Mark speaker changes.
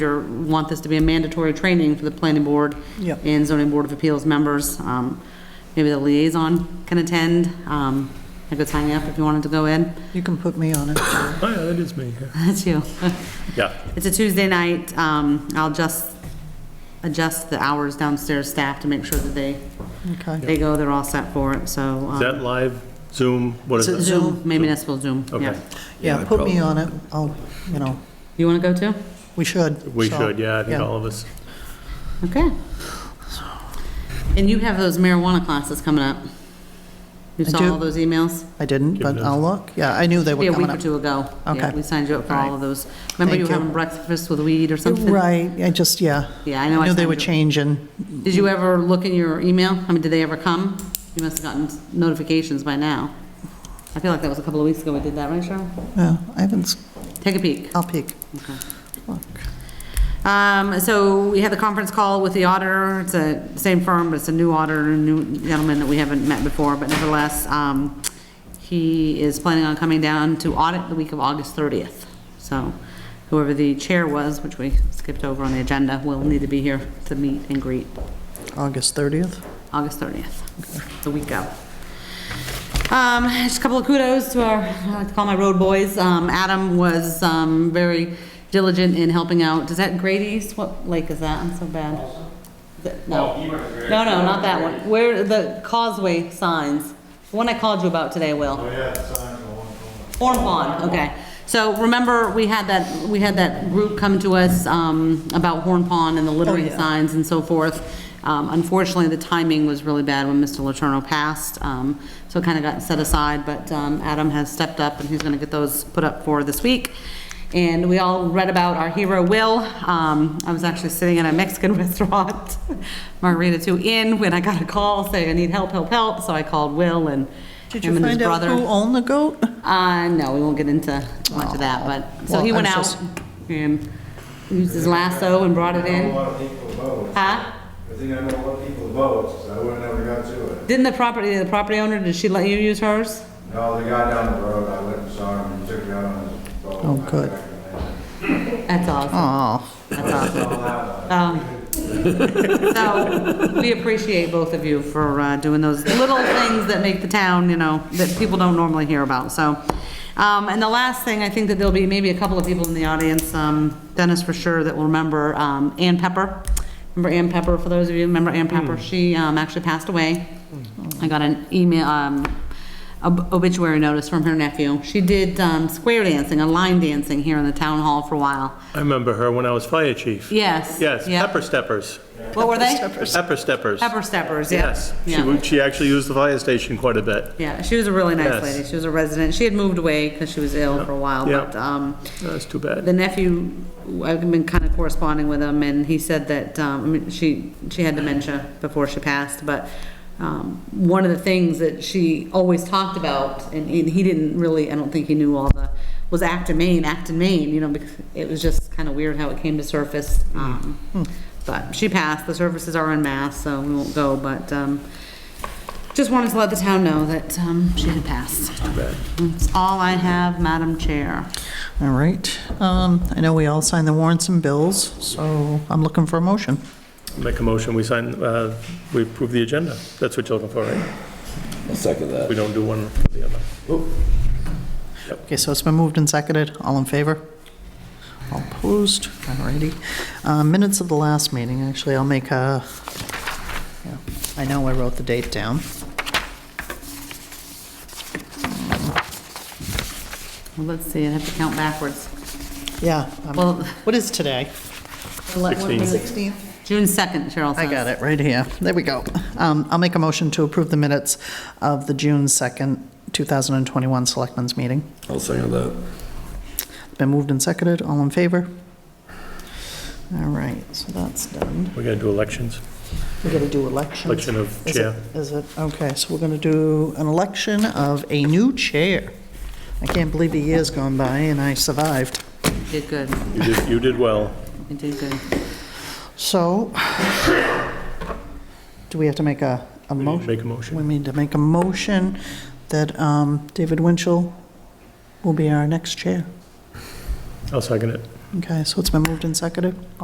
Speaker 1: or want this to be a mandatory training for the planning board
Speaker 2: Yep.
Speaker 1: and zoning board of appeals members. Um, Maybe the liaison can attend. Um, I could sign you up if you wanted to go in.
Speaker 2: You can put me on it.
Speaker 3: Oh, yeah, that is me, yeah.
Speaker 1: That's you.
Speaker 3: Yeah,
Speaker 1: It's a Tuesday night. Um, I'll just adjust the hours downstairs staff to make sure that they,
Speaker 2: Okay.
Speaker 1: they go, they're all set for it, so. um,
Speaker 3: is that live, Zoom, what is
Speaker 2: So-
Speaker 3: that?
Speaker 1: Zoom, maybe municipal Zoom, yeah.
Speaker 3: Okay.
Speaker 2: Yeah, put me on it. I'll, you know,
Speaker 1: You want to go too?
Speaker 2: we should.
Speaker 3: We
Speaker 2: so,
Speaker 3: should, yeah, I think all of us.
Speaker 1: Okay. And you have those marijuana classes coming up. You
Speaker 2: I
Speaker 1: saw
Speaker 2: do.
Speaker 1: all those emails?
Speaker 2: I didn't,
Speaker 3: Give
Speaker 2: but
Speaker 3: it a-
Speaker 2: I'll look. Yeah, I knew they
Speaker 1: Yeah,
Speaker 2: were
Speaker 1: a week
Speaker 2: coming
Speaker 1: or
Speaker 2: up.
Speaker 1: two ago. Yeah,
Speaker 2: Okay.
Speaker 1: We signed you up for
Speaker 2: All
Speaker 1: all
Speaker 2: right.
Speaker 1: of those. Remember you were
Speaker 2: Thank you.
Speaker 1: having breakfast with weed or something?
Speaker 2: Right, I just, yeah.
Speaker 1: Yeah, I know.
Speaker 2: I knew they
Speaker 1: signed
Speaker 2: were
Speaker 1: you-
Speaker 2: changing.
Speaker 1: Did you ever look in your email? I mean, did they ever come? You must have gotten notifications by now. I feel like that was a couple of weeks ago we did that, right, Cheryl?
Speaker 2: Yeah, I haven't, s-
Speaker 1: Take a peek.
Speaker 2: I'll peek.
Speaker 1: Okay.
Speaker 2: Look.
Speaker 1: Um, so we had the conference call with the auditor, it's a same firm, but it's a new auditor, a new gentleman that we haven't met before, but nevertheless, um, he is planning on coming down to audit the week of August thirtieth. So whoever the chair was, which we skipped over on the agenda, will need to be here to meet and greet
Speaker 2: August 30th?
Speaker 1: August thirtieth, It's a week out. Um, just a couple of kudos to our, I like to call my road boys. Um, Adam was, um, very diligent in helping out. Is that Great East? What lake is that? I'm so bad. Is it- No, no, no, not that one. Where, the causeway signs. The one I called you about today, Will. Oh, yeah, signs. Horn Pond, okay. So remember, we had that, we had that group come to us, um, about Horn Pond and the littering
Speaker 2: Oh, yeah.
Speaker 1: signs and so forth. Um, Unfortunately, the timing was really bad when Mr. Letourneau passed, um, so it kind of got set aside, but um, Adam has stepped up, and he's going to get those put up for this week. And we all read about our hero, Will. Um, I was actually sitting in a Mexican restaurant, Margarita Two Inn, when I got a call saying, I need help, help, help, so I called Will and
Speaker 2: Did
Speaker 1: him
Speaker 2: you
Speaker 1: and his
Speaker 2: find out
Speaker 1: brother.
Speaker 2: who owned the goat?
Speaker 1: Uh, no, we won't get into much of that, but, so he
Speaker 2: Well,
Speaker 1: went
Speaker 2: I'm
Speaker 1: out
Speaker 2: just-
Speaker 1: and used his lasso and brought it
Speaker 4: I know a
Speaker 1: in.
Speaker 4: lot of people vote.
Speaker 1: Huh?
Speaker 4: I think I know a lot of people vote, so I wouldn't ever got to it.
Speaker 1: Didn't the property, the property owner, did she let you use hers?
Speaker 4: No, the guy down the road, I went and saw him and took it out on his boat.
Speaker 2: Oh, good.
Speaker 4: I recommend it.
Speaker 1: That's awesome,
Speaker 2: Oh,
Speaker 1: that's awesome.
Speaker 4: All that one.
Speaker 1: Um, So, we appreciate both of you for uh, doing those little things that make the town, you know, that people don't normally hear about, so. Um, And the last thing, I think that there'll be maybe a couple of people in the audience, um, Dennis for sure, that will remember um, Ann Pepper. Remember Ann Pepper, for those of you who remember Ann Pepper?
Speaker 3: Hmm.
Speaker 1: She um, actually passed away. I got an email, um, ob- obituary notice from her nephew. She did um, square dancing, a line dancing here in the town hall for a while.
Speaker 3: I remember her when I was fire chief.
Speaker 1: Yes.
Speaker 3: Yes,
Speaker 1: yep.
Speaker 3: pepper steppers,
Speaker 1: What were they?
Speaker 3: pepper steppers.
Speaker 1: Pepper steppers, yeah.
Speaker 3: Yes, she,
Speaker 1: Yeah.
Speaker 3: w- she actually used the fire station quite a bit.
Speaker 1: Yeah, she was a really nice
Speaker 3: Yes.
Speaker 1: lady. She was a resident. She had moved away because she was ill for a while,
Speaker 3: Yeah.
Speaker 1: but, um,
Speaker 3: That's too
Speaker 1: the
Speaker 3: bad.
Speaker 1: nephew, I've been kind of corresponding with him, and he said that, um, I mean, she, she had dementia before she passed, but, um, one of the things that she always talked about, and he he didn't really, I don't think he knew all the, was Acton, Maine, Acton, Maine, you know, because it was just kind of weird how it came to surface. Um, but she passed, the services are en masse, so we won't go, but, um, just wanted to let the town know that, um, she had passed. That's all I have, Madam Chair.
Speaker 2: all right. Um, I know we all signed the warrants and bills, so I'm looking for a motion.
Speaker 3: Make a motion, we sign, uh, we approve the agenda. That's what you're looking for, right?
Speaker 5: I'll second
Speaker 3: We
Speaker 5: that.
Speaker 3: don't do one or the other.
Speaker 2: Okay, so it's been moved and seconded. All in favor? All opposed? All righty. Uh, Minutes of the last meeting, actually, I'll make a, yeah, I know I wrote the date down.
Speaker 1: Well, let's see, I have to count backwards.
Speaker 2: Yeah. I'm-
Speaker 1: Well-
Speaker 2: What is today?
Speaker 3: Sixteen.
Speaker 2: 16th.
Speaker 1: June 2nd, Cheryl
Speaker 2: I
Speaker 1: says.
Speaker 2: got it, right here. There we go. Um, I'll make a motion to approve the minutes of the June 2nd, 2021 Selectmen's Meeting.
Speaker 5: I'll second that.
Speaker 2: It's Been moved and seconded. All in favor? All right, so that's done.
Speaker 3: We gotta do elections,
Speaker 2: We're going to do elections.
Speaker 3: election of
Speaker 2: Is it-
Speaker 3: chair.
Speaker 2: Is it, okay, so we're going to do an election of a new chair. I can't believe a year's gone by and I survived.
Speaker 1: You did good,
Speaker 3: You did, you did well.
Speaker 1: you did good.
Speaker 2: So, do we have to make a, a
Speaker 3: We need to
Speaker 2: motion?
Speaker 3: Make a
Speaker 2: We
Speaker 3: motion.
Speaker 2: need to make a motion that um, David Winchell will be our next chair.
Speaker 3: I'll second it.
Speaker 2: Okay, so it's been moved and seconded.